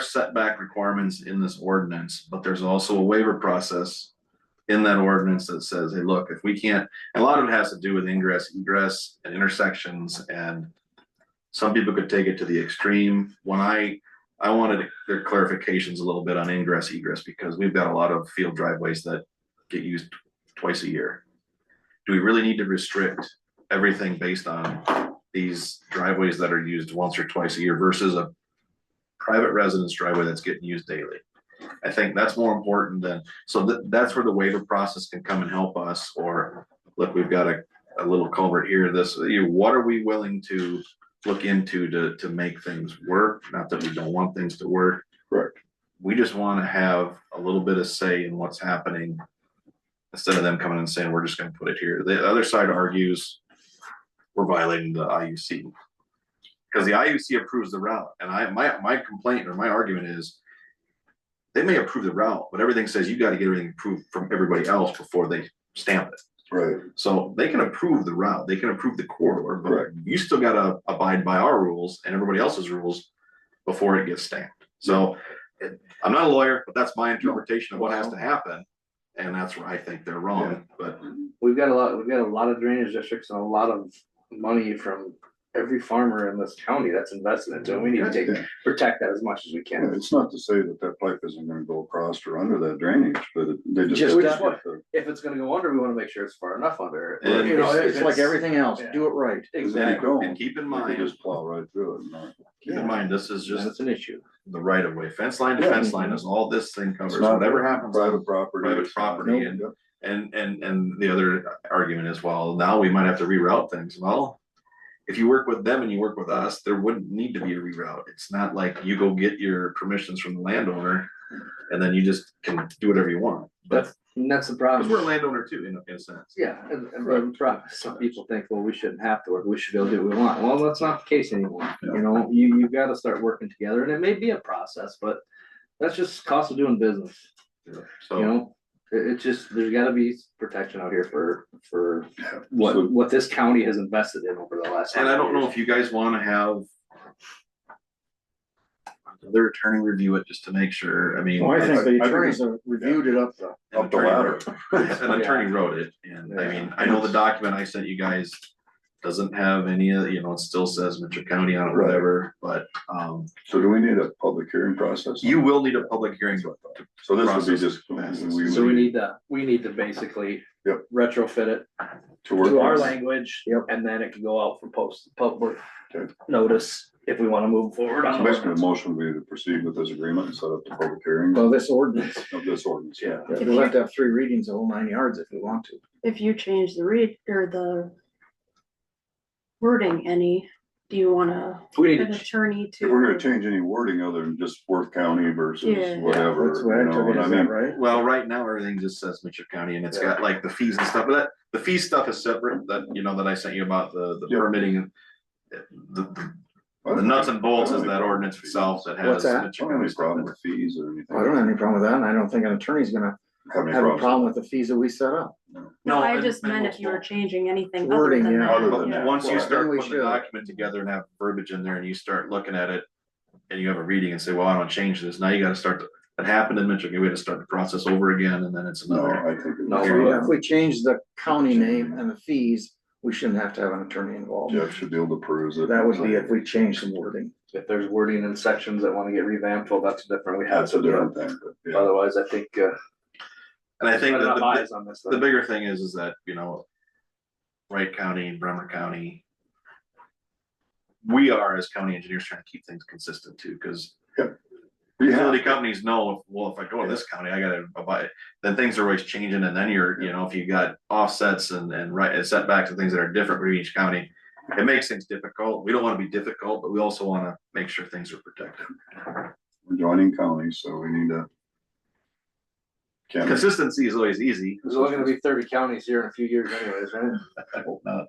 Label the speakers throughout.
Speaker 1: setback requirements in this ordinance, but there's also a waiver process. In that ordinance that says, hey, look, if we can't, and a lot of it has to do with ingress, egress and intersections and. Some people could take it to the extreme. When I, I wanted their clarifications a little bit on ingress egress because we've got a lot of field driveways that get used twice a year. Do we really need to restrict everything based on these driveways that are used once or twice a year versus a private residence driveway that's getting used daily. I think that's more important than, so that, that's where the waiver process can come and help us, or look, we've got a, a little culvert here, this, you, what are we willing to look into to, to make things work? Not that we don't want things to work.
Speaker 2: Correct.
Speaker 1: We just wanna have a little bit of say in what's happening. Instead of them coming and saying, we're just gonna put it here. The other side argues we're violating the IUC. Because the IUC approves the route, and I, my, my complaint or my argument is. They may approve the route, but everything says you gotta get everything approved from everybody else before they stamp it.
Speaker 2: Right,
Speaker 1: So they can approve the route, they can approve the corridor, but you still gotta abide by our rules and everybody else's rules before it gets stamped. So it- I'm not a lawyer, but that's my interpretation of what has to happen. And that's where I think they're wrong, but
Speaker 3: We've got a lot, we've got a lot of drainage districts and a lot of money from every farmer in this county that's invested in it, so we need to take,
Speaker 2: Yeah.
Speaker 3: protect that as much as we
Speaker 2: yeah,
Speaker 3: can.
Speaker 2: it's not to say that that pipe isn't gonna go across or under that drainage, but it- they just.
Speaker 4: Just
Speaker 2: have to
Speaker 3: that-
Speaker 2: get the-
Speaker 3: If it's gonna go under, we wanna make sure it's far enough under.
Speaker 1: And
Speaker 4: You know, it's like everything else,
Speaker 3: yeah.
Speaker 4: do it right.
Speaker 2: They
Speaker 1: and
Speaker 3: Exactly.
Speaker 2: don't.
Speaker 1: and keep in
Speaker 2: They
Speaker 1: mind,
Speaker 2: just plow right through it, and not-
Speaker 1: keep in mind, this is just
Speaker 4: That's an issue.
Speaker 1: the right of way, fence line to
Speaker 2: Yeah.
Speaker 1: fence line is all this thing covers,
Speaker 2: It's not-
Speaker 1: whatever happens.
Speaker 2: Private property.
Speaker 1: Private
Speaker 2: it's not-
Speaker 1: property and-
Speaker 2: Yep.
Speaker 1: And, and, and the other argument is, well, now we might have to reroute things, well. If you work with them and you work with us, there wouldn't need to be a reroute, it's not like you go get your permissions from the landowner. And then you just can do whatever you want, but,
Speaker 3: That's, and that's the
Speaker 1: because we're a
Speaker 3: problem.
Speaker 1: landowner too, in a, in a sense.
Speaker 3: Yeah, and, and the problem, some people think, well, we shouldn't have to work, we should be able to do what we want. Well, that's not the case anymore. You know, you, you've gotta start working together and it may be a process, but that's just cost of doing business. You
Speaker 1: So,
Speaker 3: know, it, it's just, there's gotta be protection out here for, for
Speaker 2: So-
Speaker 3: what, what this county has invested in over the last.
Speaker 1: and I don't know
Speaker 3: hundred
Speaker 1: if you guys wanna have. Their attorney review it just to make sure, I mean.
Speaker 4: Well, I think
Speaker 2: I- I
Speaker 4: the
Speaker 2: think
Speaker 4: attorneys
Speaker 2: it's-
Speaker 4: have reviewed it up the,
Speaker 1: an
Speaker 2: Up the
Speaker 1: attorney
Speaker 2: ladder.
Speaker 1: wrote- An attorney wrote it, and I mean, I know the document I sent you guys doesn't have any, of you know, it still says Mitchell County on it,
Speaker 2: Right.
Speaker 1: whatever, but, um,
Speaker 2: So do we need a public hearing process?
Speaker 1: you will need a public hearing.
Speaker 2: So this would be
Speaker 1: process.
Speaker 2: just.
Speaker 3: years. So we need to, we need to basically.
Speaker 2: Yep.
Speaker 3: Retrofit it
Speaker 2: To
Speaker 3: to
Speaker 2: work.
Speaker 3: our
Speaker 2: on-
Speaker 3: language.
Speaker 4: Yep.
Speaker 3: And then it can go out for post, public
Speaker 2: Okay.
Speaker 3: notice if we wanna move forward
Speaker 2: So
Speaker 3: on it.
Speaker 2: Basically, the motion would be to proceed with this agreement and set up the public hearing
Speaker 4: well, this ordinance,
Speaker 2: of this ordinance.
Speaker 3: Yeah.
Speaker 4: Yeah, we'll have to have three readings of all nine yards if we want to.
Speaker 5: if you change the read or the wording any, do you wanna
Speaker 3: We need
Speaker 5: an
Speaker 3: to
Speaker 5: attorney to?
Speaker 2: If we're gonna change any wording other than just Worth County versus
Speaker 5: Yeah.
Speaker 2: whatever,
Speaker 4: That's what I
Speaker 2: you know
Speaker 4: took it
Speaker 2: what I
Speaker 4: as that,
Speaker 2: mean?
Speaker 4: right?
Speaker 1: Well, right now, everything just says Mitchell County, and it's got like the fees and stuff, but that, the fee stuff is separate, that, you know, that I sent you about the, the
Speaker 2: Yeah.
Speaker 1: permitting. The, the- the nuts and bolts is that ordinance itself that has.
Speaker 4: What's that?
Speaker 2: I
Speaker 1: Mitchell
Speaker 2: don't
Speaker 1: County
Speaker 2: have any
Speaker 1: stuff in
Speaker 2: problem
Speaker 1: it.
Speaker 2: with fees or anything.
Speaker 4: I don't have any problem with that, and I don't think an attorney's gonna
Speaker 2: Have any
Speaker 4: have a
Speaker 2: problems.
Speaker 4: problem with the fees that we set up.
Speaker 5: No, I
Speaker 1: and-
Speaker 5: just
Speaker 1: and
Speaker 5: meant
Speaker 1: we'll-
Speaker 5: if you were changing anything other
Speaker 4: Wording,
Speaker 5: than
Speaker 4: yeah.
Speaker 5: that.
Speaker 2: Other than
Speaker 5: Yeah.
Speaker 2: that.
Speaker 1: Once you
Speaker 2: Well,
Speaker 1: start
Speaker 4: then we
Speaker 1: putting the
Speaker 4: should.
Speaker 1: document together and have verbiage in there and you start looking at it. And you have a reading and say, well, I don't change this. Now you gotta start, to- that happened in Michigan. We had to start the process over again and then it's
Speaker 2: No,
Speaker 1: another.
Speaker 2: I think. it
Speaker 3: No,
Speaker 2: was- uh,
Speaker 4: If we change the county name and the fees, we shouldn't have to have an attorney involved.
Speaker 2: Jeff should be able to peruse it.
Speaker 4: That would be if we change some wording.
Speaker 3: if there's wording in sections that wanna get revamped, well, that's different, we have
Speaker 2: That's
Speaker 3: to
Speaker 2: a
Speaker 3: do it.
Speaker 2: different thing, but yeah,
Speaker 3: Otherwise, I think, uh.
Speaker 1: And I think that
Speaker 3: I'm not
Speaker 1: the,
Speaker 3: biased on this,
Speaker 1: the
Speaker 3: though.
Speaker 1: bigger thing is, is that, you know. Wright County, Bremer County. We are as county engineers trying to keep things consistent too, cause
Speaker 2: we have,
Speaker 1: utility companies know, well, if I go to this county, I gotta abide. Then things are always changing and then you're, you know, if you got offsets and, and right, and setbacks and things that are different for each county. It makes things difficult. We don't wanna be difficult, but we also wanna make sure things are protected.
Speaker 2: we're joining counties, so we need to. Can't, make-
Speaker 1: Consistency is always easy.
Speaker 3: There's only gonna be thirty counties here in a few years anyways, right?
Speaker 1: I hope not.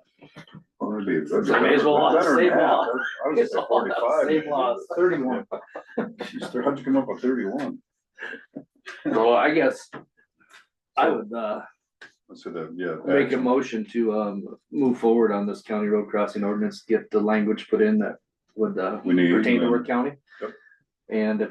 Speaker 2: well, it'd be. it'd be
Speaker 3: I may as well
Speaker 2: better than
Speaker 3: save
Speaker 2: that.
Speaker 3: laws.
Speaker 2: I was gonna say forty-five.
Speaker 3: Save laws.
Speaker 4: Thirty-one.
Speaker 2: Jeez, there- How'd you come up with thirty-one?
Speaker 3: Well, I guess I would, uh,
Speaker 2: So that, yeah.
Speaker 3: make a motion to, um, move forward on this county road crossing ordinance, get the language put in that would, uh,
Speaker 2: We need.
Speaker 3: pertain to Ward County.
Speaker 2: Yep.
Speaker 3: And if